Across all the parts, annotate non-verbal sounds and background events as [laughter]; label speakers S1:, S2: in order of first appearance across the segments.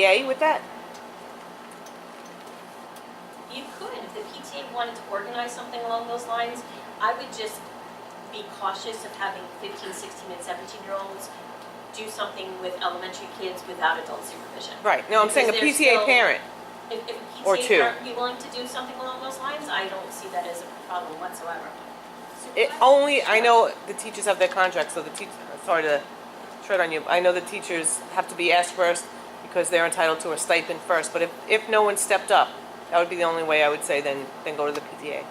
S1: yay with that?
S2: You could, if the PTA wanted to organize something along those lines, I would just be cautious of having 15, 16, and 17-year-olds do something with elementary kids without adult supervision.
S1: Right, no, I'm saying a
S2: Because there's
S1: PTA
S2: still-
S1: parent,
S2: If if
S1: Or
S2: a PTA
S1: two.
S2: parent would be willing to do something along those lines, I don't see that as a problem whatsoever.
S1: it only, I know the teachers have their contracts, so the teach, sorry to tread on you, I know the teachers have to be asked first because they're entitled to a stipend first, but if, if no one stepped up, that would be the only way I would say then, then go to the PTA.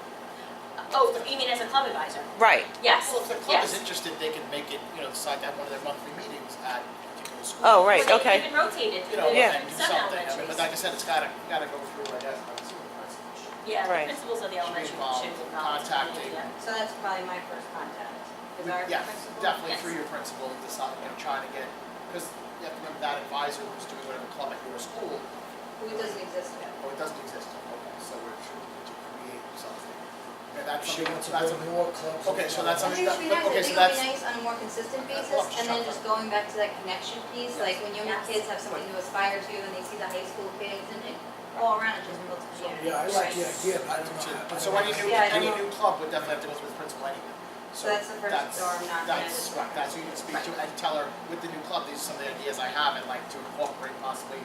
S2: Oh, you mean as a club advisor?
S1: Right,
S2: Yes,
S3: Well, if the club is
S2: yes.
S3: interested, they can make it, you know, decide to have one of their monthly meetings at a particular school.
S1: oh, right,
S2: Or
S1: okay.
S2: they even rotated,
S3: You know,
S1: Yeah.
S3: and do
S2: some
S3: something, I mean,
S2: elementaries.
S3: but like I said, it's gotta, gotta go through, I guess, by the supervisor.
S2: Yeah,
S1: Right.
S2: the principals of the elementary
S3: Should be
S2: should
S3: involved,
S2: acknowledge that,
S3: contacting.
S2: yeah.
S4: So that's probably my first contact, is our
S3: Yeah,
S4: principal.
S3: definitely
S2: Yes.
S3: through your principal, and decide, you know, trying to get, because you have to remember that advisor who's doing whatever club at your school,
S4: Who doesn't exist yet.
S3: oh, it doesn't exist, okay, so we're trying to create something. And that's
S5: She
S3: something,
S5: wants to
S3: that's
S5: build
S3: something,
S5: more clubs.
S3: Okay, so that's
S4: I
S3: something-
S4: think it should be
S3: but- okay,
S4: nice, I think it
S3: so
S4: would be
S3: that's-
S4: nice on a more consistent
S3: That's
S4: basis,
S3: lots of
S4: and then
S3: stuff.
S4: just going back to that connection piece,
S3: Yes.
S4: like when younger
S2: Yes.
S4: kids have something to aspire to, and they see the high school kids, and it all around, it just builds community.
S5: Yeah, I like the idea, but I don't know. how-
S3: But
S5: I don't
S3: so
S5: know
S3: any
S5: how-
S3: new,
S4: Yeah, I
S3: any
S4: know.
S3: new club would definitely have to go through the principal anyway.
S4: So that's the first
S3: that's-
S4: door knock, and I
S3: That's,
S4: just-
S3: right, that's who you can speak to and tell her, with the new club, these are some of the ideas I have, and like to incorporate possibly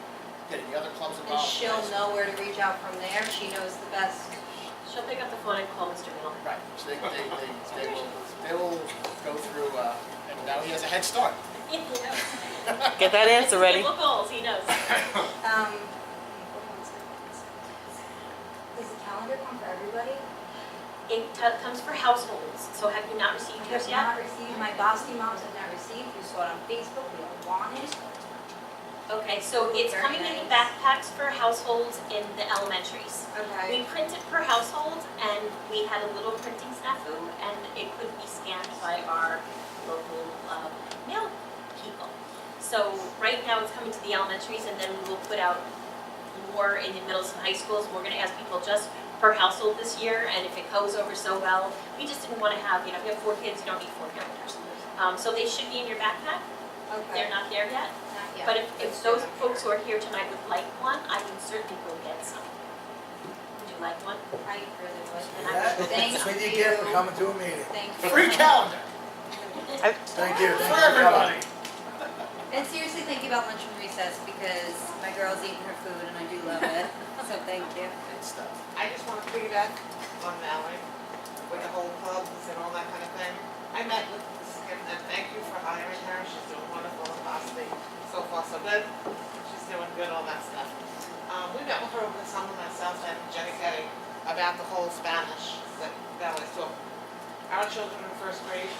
S3: getting the other clubs
S4: And
S3: involved.
S4: she'll know where to reach out from there, she knows the best.
S2: She'll pick up the phone and call Mr. Middleton.
S3: Right, so they, they, they, they will, they will go through, uh, and now he has a head start.
S2: He knows.
S1: Get that answer ready.
S2: Simple goals, he knows.
S4: Um, hold on a second. Does the calendar come for everybody?
S2: It t- comes for households, so have you not received
S4: I
S2: yours
S4: have
S2: yet?
S4: not received, my Boston moms have not received, you saw it on Facebook, we all want it.
S2: Okay, so it's
S4: Very
S2: coming in
S4: nice.
S2: backpacks for households in the elementaries. We
S4: Okay.
S2: printed per household and we had a little printing snafu and it could be scanned by our local um, mail people. So right now it's coming to the elementaries and then we will put out more in the middles and high schools. We're gonna ask people just per household this year and if it goes over so well, we just didn't wanna have, you know, if you have four kids, you don't need four calendars. Um, so they should be in your backpack, they're
S4: Okay.
S2: not there yet.
S4: Not yet.
S2: But if,
S4: It's
S2: if those
S4: not
S2: folks who are here tonight would like one, I can certainly go get some. Would you like one?
S4: yet. I really
S2: And
S4: would.
S2: I-
S5: Yeah,
S4: Thank
S5: Sweetie
S4: you.
S5: gift for coming to a meeting.
S4: Thank you.
S3: Free calendar
S1: I-
S5: Thank you.
S3: for everybody.
S4: [laughs] And seriously, thank you about lunch and recess because my girl's eating her food and I do love it. So thank you.
S3: Good stuff.
S6: I just want to piggyback on Mallory with the whole clubs and all that kind of thing. I met with this kid and thank you for hiring her. She's doing wonderful in Boston. So far, so good. She's doing good, all that stuff. Um, we met with her over the summer, myself and Jenny Kelly, about the whole Spanish that Valerie's taught. Our children in first grade,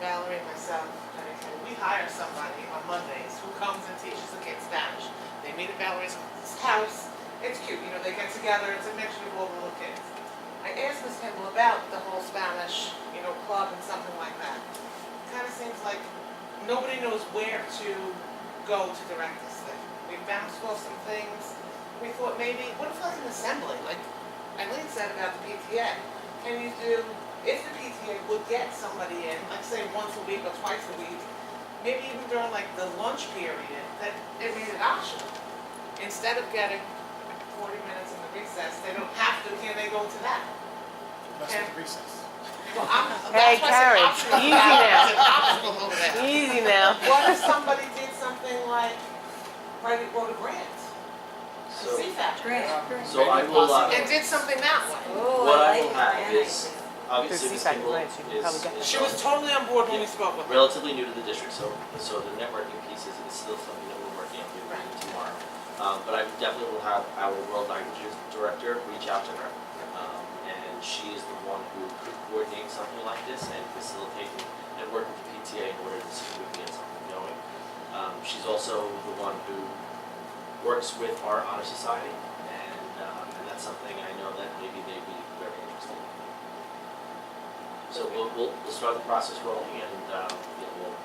S6: Valerie, myself, Jenny Kelly, we hire somebody on Mondays who comes and teaches the kids Spanish. They meet at Valerie's house, it's cute, you know, they get together, it's a mixture of all the little kids. I asked Miss Campbell about the whole Spanish, you know, club and something like that. Kind of seems like nobody knows where to go to direct this thing. We bounced off some things, we thought maybe, what if like an assembly, like Eileen said about the PTA? Can you do, if the PTA would get somebody in, like say once a week or twice a week, maybe even during like the lunch period, that it made it optional. Instead of getting forty minutes in the recess, they don't have to, can they go to that?
S3: Must be recess.
S6: Well, I'm,
S1: Hey,
S6: that's why I
S1: Karen,
S6: said [laughs] optional.
S1: easy now. Easy
S6: It's an optional over there.
S1: now.
S6: What if somebody did something like, write it, wrote a grant?
S7: So-
S6: CFAP.
S4: Great.
S7: So I will, uh,
S6: And did something that way.
S4: Oh,
S7: What I
S4: like
S7: will
S4: the
S7: have
S4: banana.
S7: is- Obviously,
S1: There's
S7: Ms.
S1: CSAC
S7: Kimball
S1: grants, you can probably
S7: is,
S1: get that.
S7: is
S6: She was totally on board when we spoke with her.
S7: relatively new to the district, so, so the networking piece is, is still something that we're working on doing tomorrow. Um, but I definitely will have our world languages director reach out to her. Um, and she is the one who could coordinate something like this and facilitate it and work with the PTA in order to see if we can get something going. Um, she's also the one who works with our honor society and, um, and that's something I know that maybe they'd be very interested in. So we'll, we'll, we'll start the process rolling and, um, you know, we'll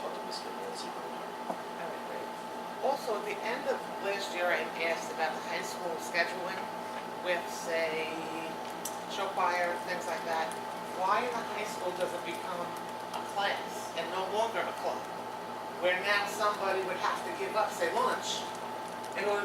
S7: talk to Ms. Kimball and see what we can do.
S6: Oh, Also, at the end of last year, I asked about the high school scheduling with, say, show choir, things like that. Why in the high school does it become a class and no longer a club? Where now somebody would have to give up, say, lunch, in order